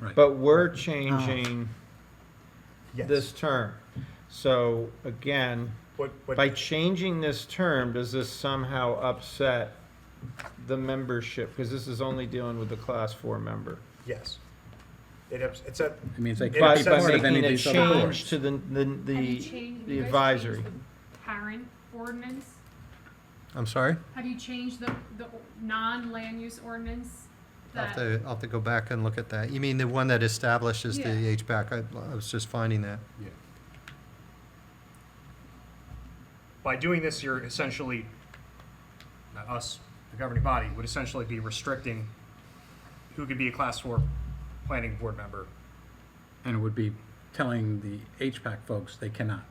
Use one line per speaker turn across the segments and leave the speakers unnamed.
Right.
But we're changing
Yes.
this term. So again,
What, what,
by changing this term, does this somehow upset the membership? Because this is only dealing with the class four member.
yes. It, ups- it's a,
I mean, they
It
By,
can't
upsets
be
by
part of
making
any of
a
these other
change
boards.
to the, the,
Have you
the,
changed-
the
you guys changed
advisory.
the Parent ordinance,
I'm sorry?
have you changed the, the o- non-land use ordinance?
I'll have
that-
to, I'll have to go back and look at that. You mean the one that establishes the
Yeah.
HVAC? I, I was just finding that.
by doing this, you're essentially, not us, the governing body, would essentially be restricting who could be a class four planning board member.
And it would be telling the HPAC folks they cannot.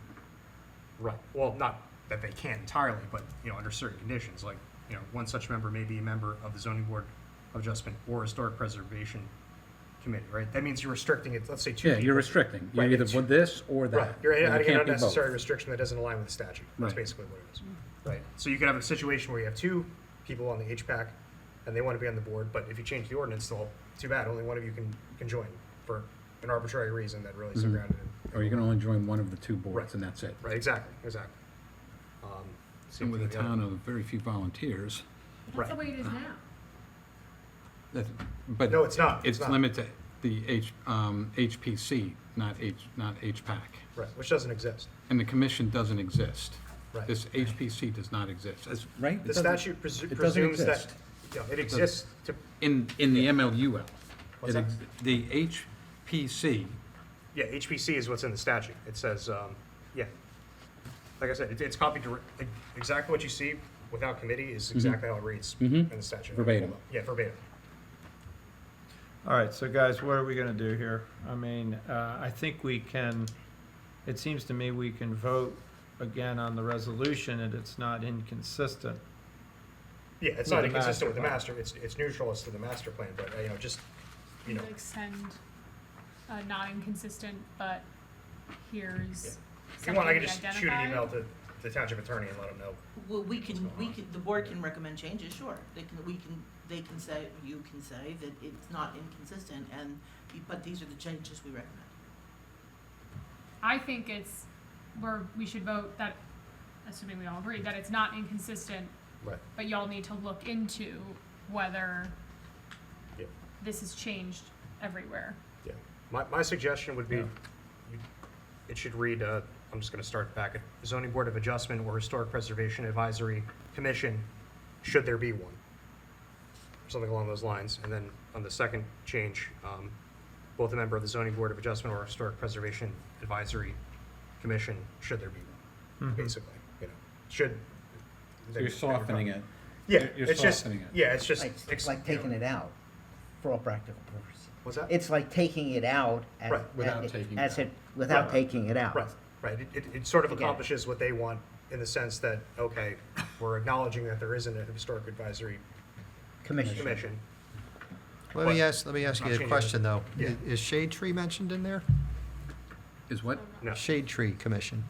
Right. Well, not that they can entirely, but, you know, under certain conditions, like, you know, one such member may be a member of the zoning board of adjustment or historic preservation committee, right? That means you're restricting it, let's say two
Yeah,
people.
you're restricting. You're
Right,
either
it's-
with this or
Right,
that.
you're
and it
adding an
can't be both.
unnecessary restriction that doesn't align with the statute, that's
Right.
basically what it is. Right, so you could have a situation where you have two people on the HPAC, and they want to be on the board, but if you change the ordinance, they'll, too bad, only one of you can, can join for an arbitrary reason that really is
Mm-hmm.
grounded in.
Or you can only join one of the two
Right.
boards and that's it.
Right, exactly, exactly. Um, same
And with a
thing the other-
town of very few volunteers,
Right. uh,
That's the way it is now.
that, but.
No, it's not, it's
It's
not.
limited, the H, um, HPC, not H, not HPAC.
Right, which doesn't exist.
And the commission doesn't exist.
Right.
This HPC does not exist. It's- Right? It
The
doesn't-
statute presu-
doesn't
presumes that,
exist.
yeah, it exists to,
In, in the MLUL.
What's
It ex- The HPC,
yeah, HPC is what's in the statute. It says, um, yeah. Like I said, it- it's copied direct, exactly what you see without committee is exactly how it reads in
Mhm.
the statute.
Verbatim.
Yeah, verbatim.
All right, so guys, what are we gonna do here? I mean, uh, I think we can, it seems to me we can vote again on the resolution and it's not inconsistent.
Yeah, it's
With
not
the
inconsistent with the
master
master, it's, it's neutral as to the master plan, but, uh, you know, just, you
You
know,
extend, uh, not inconsistent, but here's
if you want, I
something
can
we
just shoot an email
identified.
to the township attorney and let him know.
Well, we can,
going
we
on.
can, the board can recommend changes, sure. They can, we can, they can say, you can say that it's not inconsistent and, you- but these are the changes we recommend.
I think it's, where we should vote that, assuming we all agree, that it's not inconsistent,
Right.
but y'all need to look into whether
Yeah.
this has changed everywhere.
Yeah. My, my suggestion would be,
Yeah.
you- it should read, uh, I'm just gonna start back at zoning board of adjustment or historic preservation advisory commission, should there be one. Something along those lines. And then on the second change, um, both a member of the zoning board of adjustment or historic preservation advisory commission, should there be one,
Mhm.
basically, you know, should.
so Mm-hmm. you're softening it.
Yeah,
You're- you're
it's just,
softening it.
yeah, it's just.
It's
ex-
like
you know,
taking it out, for all practical purposes.
What's that?
It's like taking it out as,
Right.
Without taking it
as
out.
it, without
Right.
taking it out.
Right, right. It- It, it sort of
I get it.
accomplishes what they want in the sense that, okay, we're acknowledging that there isn't a historic advisory
Commission.
commission.
Let me
What?
ask, let me ask
Not
you a
changing
question,
it.
though.
Yeah.
I- Is shade tree mentioned in there?
Is what?
No,
Shade tree commission.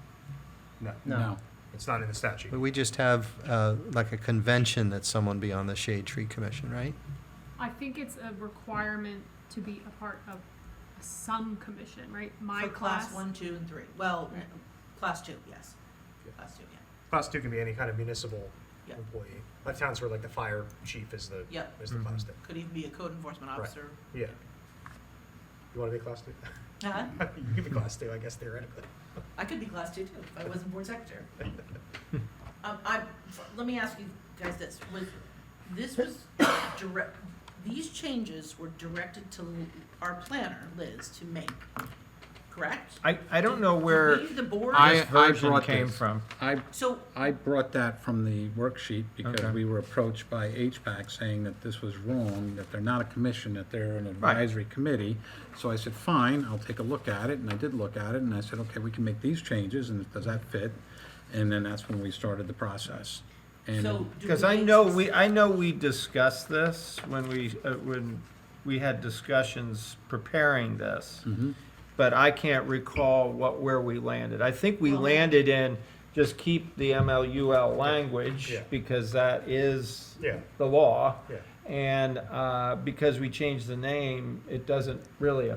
no,
No.
it's not in the statute.
But we just have, uh, like a convention that someone be on the shade tree commission, right?
I think it's a requirement to be a part of some commission, right? My
For
class.
Class one, two, and three. Well,
Right.
class two, yes.
Yeah.
Class two, yeah.
Class two can be any kind of municipal
Yeah.
employee. A lot of towns where like the fire chief is the,
Yep.
is the
Mhm.
class two.
Could even be a code enforcement
Right.
officer.
Yeah. You want to be class two?
Huh?
You could be class two, I guess theoretically.
I could be class two too, if I wasn't board secretary. Um, I, let me ask you guys this, was, this was direct, these changes were directed to our planner, Liz, to make, correct?
I, I don't know
Did
where
we, the board,
I-
this version
brought
came
this.
from.
I,
so,
I brought that from the worksheet because
Okay.
we were approached by HPAC saying that this was wrong, that they're not a commission, that they're an
Right.
advisory committee. So I said, fine, I'll take a look at it, and I did look at it, and I said, okay, we can make these changes, and does that fit? And then that's when we started the process. And
so. do
Because
we
I
make
know
s-
we, I know we discussed this when we, uh, when we had discussions preparing this. But I can't recall what, where we landed. I think we
Well-
landed in just keep the MLUL language
Yeah.
because that is
Yeah.
the law.
Yeah.
And, uh, because we changed the name, it doesn't really